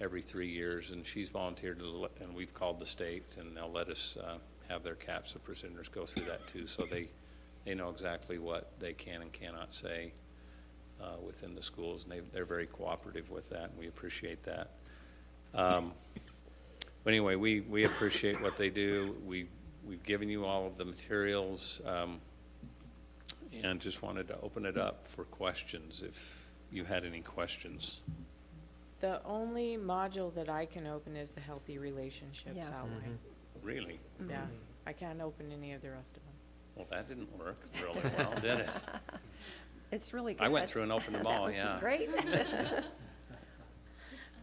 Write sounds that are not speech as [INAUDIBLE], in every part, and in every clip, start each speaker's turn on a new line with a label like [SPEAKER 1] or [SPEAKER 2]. [SPEAKER 1] every three years, and she's volunteered, to let- and we've called the state, and they'll let us uh, have their CAPS of prisoners go through that too, so they, they know exactly what they can and cannot say uh, within the schools, and they, they're very cooperative with that, and we appreciate that. Um, But anyway, we, we appreciate what they do. We, we've given you all of the materials, um, and just wanted to open it up for questions, if you had any questions.
[SPEAKER 2] The only module that I can open is the healthy relationships
[SPEAKER 3] Yeah. Mm-hmm.
[SPEAKER 2] outline.
[SPEAKER 1] Really?
[SPEAKER 2] Yeah, I can't open any of the rest of them.
[SPEAKER 1] Well, that didn't work really well, did
[SPEAKER 3] [LAUGHS]
[SPEAKER 1] it?
[SPEAKER 3] It's really good.
[SPEAKER 1] I went through and opened them all, yeah.
[SPEAKER 3] [LAUGHS]
[SPEAKER 1] [LAUGHS]
[SPEAKER 3] That was great.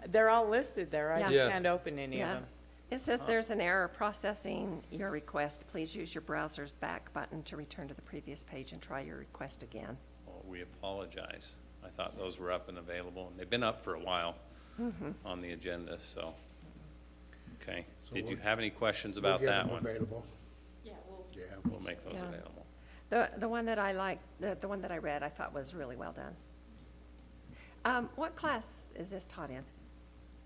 [SPEAKER 2] They're all listed there, I
[SPEAKER 3] Yeah.
[SPEAKER 2] just
[SPEAKER 4] Yeah.
[SPEAKER 2] can't open any of
[SPEAKER 3] [LAUGHS] Yeah.
[SPEAKER 2] them.
[SPEAKER 3] It says there's an error processing your request. Please use your browser's back button to return to the previous page and try your request again.
[SPEAKER 1] Well, we apologize. I thought those were up and available, and they've been up for a while
[SPEAKER 3] Mm-hmm.
[SPEAKER 1] on the agenda, so. Okay.
[SPEAKER 5] So
[SPEAKER 1] Did you
[SPEAKER 5] we'll-
[SPEAKER 1] have any questions
[SPEAKER 5] We'll
[SPEAKER 1] about
[SPEAKER 5] get
[SPEAKER 1] that
[SPEAKER 5] them
[SPEAKER 1] one?
[SPEAKER 5] Available,
[SPEAKER 6] Yeah, well,
[SPEAKER 5] yeah.
[SPEAKER 1] We'll make those
[SPEAKER 3] Yeah.
[SPEAKER 1] available.
[SPEAKER 3] The, the one that I liked, the, the one that I read, I thought was really well done. Um, what class is this taught in?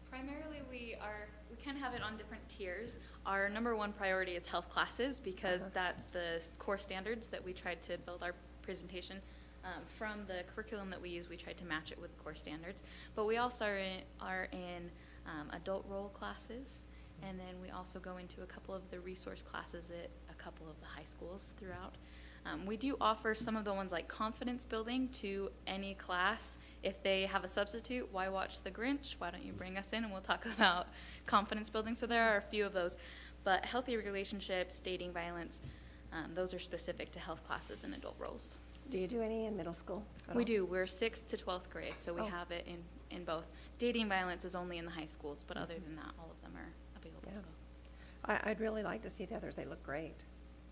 [SPEAKER 6] primarily we are, we kind of have it on different tiers. Our number one priority is health classes because that's the s- core standards that we tried to build our presentation. um, From the curriculum that we use, we tried to match it with core standards. But we also are in, are in um, adult role classes. And then we also go into a couple of the resource classes at a couple of the high schools throughout. Um, we do offer some of the ones like confidence building to any class. If they have a substitute, why watch The Grinch? Why don't you bring us in and we'll talk [LAUGHS] about confidence building? So there are a few of those. But healthy relationships, dating violence, um, those are specific to health classes and adult roles.
[SPEAKER 3] Do you do any in middle school? at
[SPEAKER 6] We
[SPEAKER 3] all?
[SPEAKER 6] do. We're sixth to 12th grade, so we
[SPEAKER 3] Oh.
[SPEAKER 6] have it in, in both. Dating violence is only in the high schools, but other than that, all of them are available
[SPEAKER 3] Mm-hmm.
[SPEAKER 6] to
[SPEAKER 3] Yeah.
[SPEAKER 6] go.
[SPEAKER 3] I, I'd really like to see the others. They look great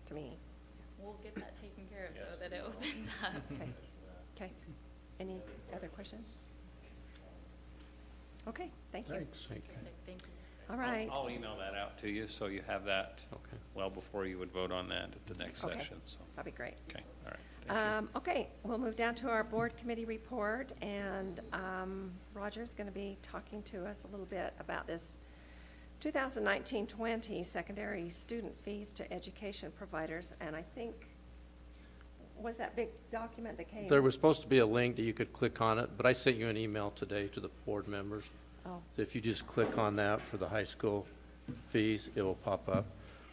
[SPEAKER 3] to me.
[SPEAKER 6] We'll get that taken care of so
[SPEAKER 1] Yes,
[SPEAKER 6] that
[SPEAKER 1] we
[SPEAKER 6] it
[SPEAKER 1] will.
[SPEAKER 6] opens up.
[SPEAKER 1] [LAUGHS]
[SPEAKER 3] Okay. Okay. Any other questions? Okay, thank you.
[SPEAKER 5] Thanks.
[SPEAKER 6] [LAUGHS] Perfect. Thank you.
[SPEAKER 1] I'll-
[SPEAKER 3] All right.
[SPEAKER 1] I'll email that out to you, so you have that
[SPEAKER 4] Okay.
[SPEAKER 1] well before you would vote on that at the next
[SPEAKER 3] Okay.
[SPEAKER 1] session, so,
[SPEAKER 3] That'd be great.
[SPEAKER 1] okay, all right. Thank you.
[SPEAKER 3] Um, okay, we'll move down to our board committee report, and, um, Roger's gonna be talking to us a little bit about this 2019-20 secondary student fees to education providers, and I think, was that big document that came?
[SPEAKER 4] There was supposed to be a link that you could click on it, but I sent you an email today to the board members.
[SPEAKER 3] Oh,
[SPEAKER 4] So If you just click on that for the high school fees, it will pop up.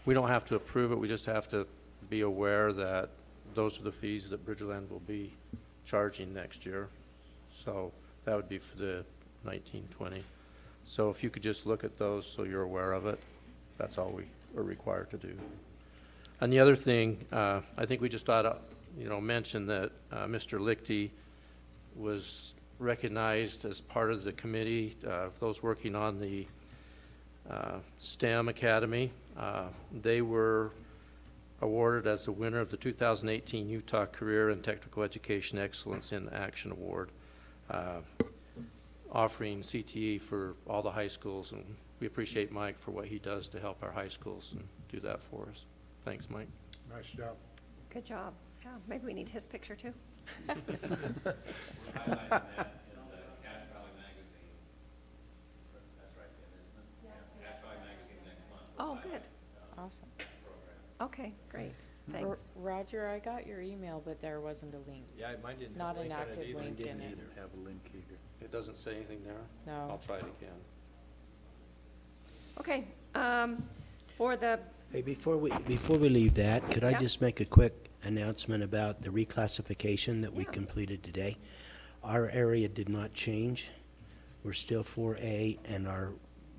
[SPEAKER 4] We don't have to approve it, we just have to be aware that those are the fees that Bridgeland will be charging next year. So that would be for the nineteen twenty. So if you could just look at those so you're aware of it, that's all we are required to do. And the other thing, uh, I think we just ought to, you know, mention that uh, Mr. Lichty was recognized as part of the committee, uh, for those working on the uh, STEM Academy. Uh, They were awarded as the winner of the 2018 Utah Career and Technical Education Excellence in Action Award, uh, offering CTE for all the high schools. And we appreciate Mike for what he does to help our high schools and do that for us. Thanks, Mike.
[SPEAKER 5] Nice job.
[SPEAKER 3] good job. Yeah, maybe we need his picture too. [LAUGHS] Oh, good.
[SPEAKER 2] Awesome.
[SPEAKER 3] Okay, great.
[SPEAKER 1] Mm-hmm.
[SPEAKER 2] R-
[SPEAKER 3] Thanks.
[SPEAKER 2] Roger, I got your email, but there wasn't a link.
[SPEAKER 4] Yeah, mine didn't
[SPEAKER 2] Not an active link in it.
[SPEAKER 7] have a link either.
[SPEAKER 4] It doesn't say anything there?
[SPEAKER 2] No.
[SPEAKER 4] I'll try it again.
[SPEAKER 3] Okay, um, for the,
[SPEAKER 7] Hey, before we, before we leave that, could I
[SPEAKER 3] Yeah.
[SPEAKER 7] just make a quick announcement about the reclassification that we
[SPEAKER 3] Yeah.
[SPEAKER 7] completed today? Our area did not change. We're still 4A, and our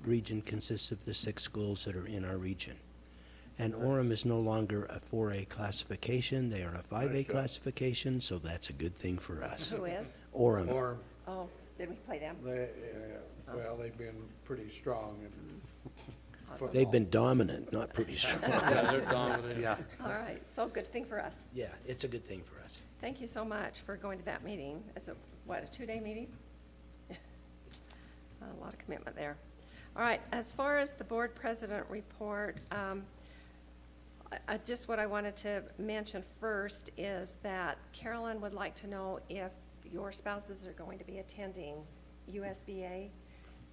[SPEAKER 7] region consists of the six schools that are in our region. And Orem is no longer a 4A classification, they are a 5A classification, so that's a good thing for us.
[SPEAKER 3] who is?
[SPEAKER 7] Orem,
[SPEAKER 5] Or,
[SPEAKER 3] Oh, did we play them?
[SPEAKER 5] they, uh, well, they've been pretty strong in football.
[SPEAKER 7] they've been dominant, not
[SPEAKER 5] [LAUGHS]
[SPEAKER 7] pretty strong.
[SPEAKER 3] [LAUGHS]
[SPEAKER 4] Yeah, they're dominant.
[SPEAKER 7] Yeah.
[SPEAKER 3] All right, so good thing for us.
[SPEAKER 7] Yeah, it's a good thing for us.
[SPEAKER 3] Thank you so much for going to that meeting. It's a, what, a two-day meeting? [LAUGHS] A lot of commitment there. All right, as far as the board president report, um, I- I, just what I wanted to mention first is that Carolyn would like to know if your spouses are going to be attending USBA